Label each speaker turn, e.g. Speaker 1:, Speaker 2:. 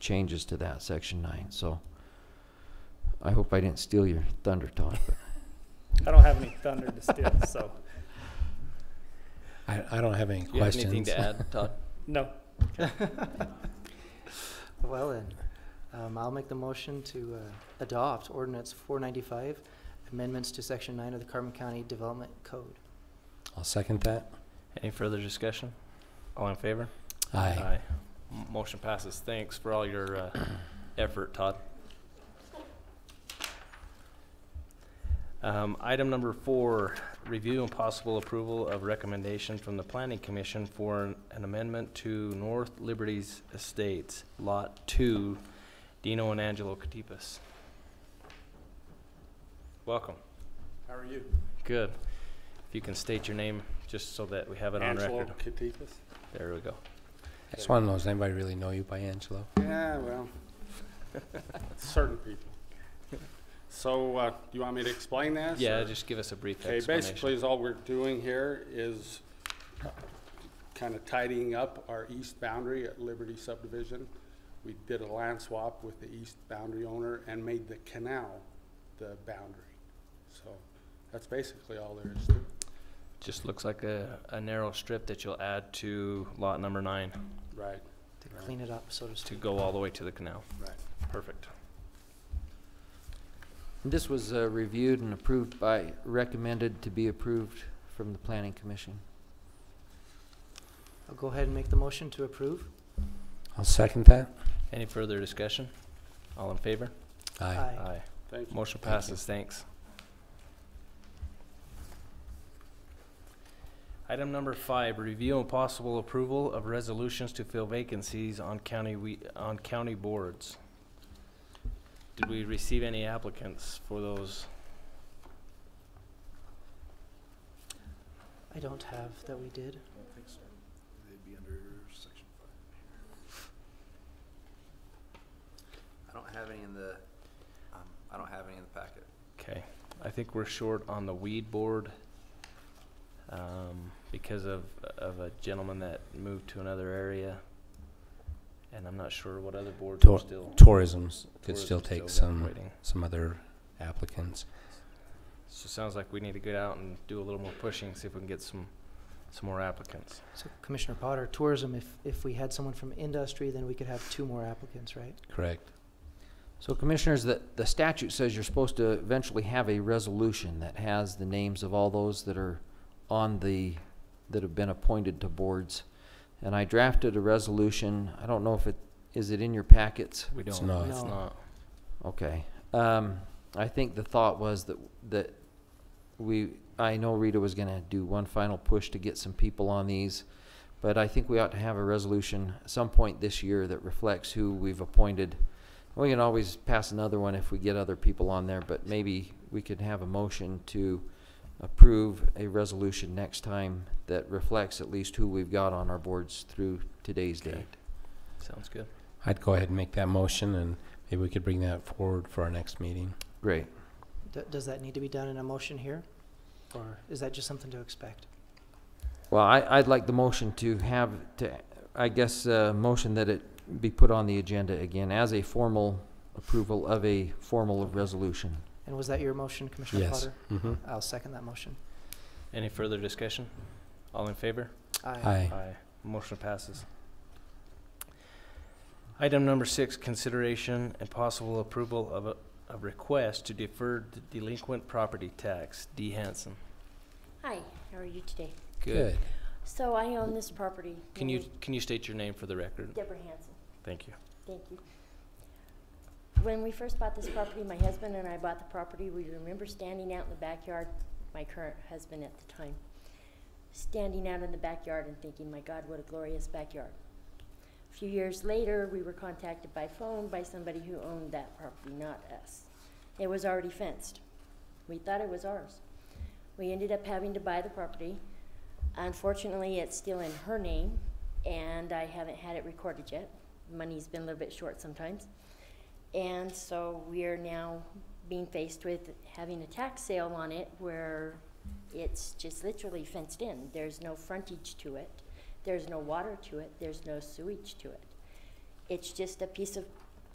Speaker 1: changes to that, section nine, so. I hope I didn't steal your thunder, Todd, but
Speaker 2: I don't have any thunder to steal, so,
Speaker 3: I, I don't have any
Speaker 4: Do you have
Speaker 3: questions.
Speaker 4: anything to add, Todd?
Speaker 2: no.
Speaker 5: Well then, um, I'll make the motion to, uh, adopt ordinance four ninety-five, amendments to section nine of the Carbon County Development Code.
Speaker 3: I'll second that.
Speaker 4: Any further discussion? All in favor?
Speaker 3: Aye.
Speaker 4: M- Motion passes. Thanks for all your uh, effort, Todd. Um, Item number four, review and possible approval of recommendation from the Planning Commission for an- an amendment to North Liberties Estates, Lot Two, Dino and Angelo Katipas. Welcome.
Speaker 6: How are you?
Speaker 4: Good. If you can state your name, just so that we have it on
Speaker 6: Angelo
Speaker 4: record.
Speaker 6: Katifas?
Speaker 4: There we go.
Speaker 3: I just want to know, does anybody really know you by Angelo?
Speaker 6: Yeah, well, certain people. So, uh, do you want me to explain that?
Speaker 4: Yeah,
Speaker 6: or-
Speaker 4: just give us a brief
Speaker 6: Okay,
Speaker 4: explanation.
Speaker 6: basically, is all we're doing here is kind of tidying up our east boundary at Liberty subdivision. We did a land swap with the east boundary owner and made the canal the boundary. So, that's basically all there is to it.
Speaker 4: Just looks like a, a narrow strip that you'll add to lot number nine
Speaker 6: Right,
Speaker 5: To
Speaker 6: Right.
Speaker 5: clean it up, so to
Speaker 4: to
Speaker 5: speak.
Speaker 4: go all the way to the canal.
Speaker 6: right.
Speaker 4: Perfect.
Speaker 1: this was uh, reviewed and approved by, recommended to be approved from the planning commission.
Speaker 5: I'll go ahead and make the motion to approve.
Speaker 3: I'll second that.
Speaker 4: Any further discussion? All in favor?
Speaker 3: Aye.
Speaker 6: Thank you.
Speaker 4: Motion
Speaker 3: Thank you.
Speaker 4: passes, thanks. Item number five, review and possible approval of resolutions to fill vacancies on county, we, on county boards. Did we receive any applicants for those?
Speaker 5: I don't have that we did.
Speaker 7: I don't have any in the, um, I don't have any in the packet.
Speaker 4: Okay, I think we're short on the weed board, um, because of, of a gentleman that moved to another area. And I'm not sure what other boards are
Speaker 3: Tor-
Speaker 4: still.
Speaker 3: Tourism could
Speaker 4: tourism's
Speaker 3: still take
Speaker 4: got-
Speaker 3: some,
Speaker 4: waiting.
Speaker 3: some other applicants.
Speaker 4: So sounds like we need to get out and do a little more pushing, see if we can get some, some more applicants.
Speaker 5: So Commissioner Potter, tourism, if, if we had someone from industry, then we could have two more applicants, right?
Speaker 3: Correct.
Speaker 1: So commissioners, the, the statute says you're supposed to eventually have a resolution that has the names of all those that are on the, that have been appointed to boards. And I drafted a resolution, I don't know if it, is it in your packets?
Speaker 4: We
Speaker 3: It's
Speaker 4: don't,
Speaker 3: not.
Speaker 4: it's
Speaker 5: No.
Speaker 4: not.
Speaker 1: Okay. Um, I think the thought was that, that we, I know Rita was gonna do one final push to get some people on these, but I think we ought to have a resolution at some point this year that reflects who we've appointed. We can always pass another one if we get other people on there, but maybe we could have a motion to approve a resolution next time that reflects at least who we've got on our boards through today's
Speaker 4: Okay.
Speaker 1: date.
Speaker 4: Sounds good.
Speaker 3: I'd go ahead and make that motion and maybe we could bring that forward for our next meeting.
Speaker 1: Great.
Speaker 5: D- Does that need to be done in a motion here? Or is that just something to expect?
Speaker 1: Well, I, I'd like the motion to have, to, I guess, uh, motion that it be put on the agenda again as a formal approval of a formal resolution.
Speaker 5: And was that your motion, Commissioner
Speaker 3: Yes.
Speaker 5: Potter?
Speaker 3: Mm-hmm.
Speaker 5: I'll second that motion.
Speaker 4: Any further discussion? All in favor?
Speaker 3: Aye.
Speaker 4: Aye. Motion passes. Item number six, consideration and possible approval of a, a request to defer the delinquent property tax. D. Hanson.
Speaker 8: Hi, how are you today?
Speaker 3: Good.
Speaker 8: So I own this property.
Speaker 4: Can you,
Speaker 8: named
Speaker 4: can you state your name for the record?
Speaker 8: Deborah Hanson,
Speaker 4: Thank you.
Speaker 8: thank you. When we first bought this property, my husband and I bought the property, we remember standing out in the backyard, my current husband at the time, standing out in the backyard and thinking, my God, what a glorious backyard. A few years later, we were contacted by phone by somebody who owned that property, not us. It was already fenced. We thought it was ours. We ended up having to buy the property. Unfortunately, it's still in her name, and I haven't had it recorded yet. Money's been a little bit short sometimes. And so we are now being faced with having a tax sale on it where it's just literally fenced in. There's no frontage to it. There's no water to it. There's no sewage to it. It's just a piece of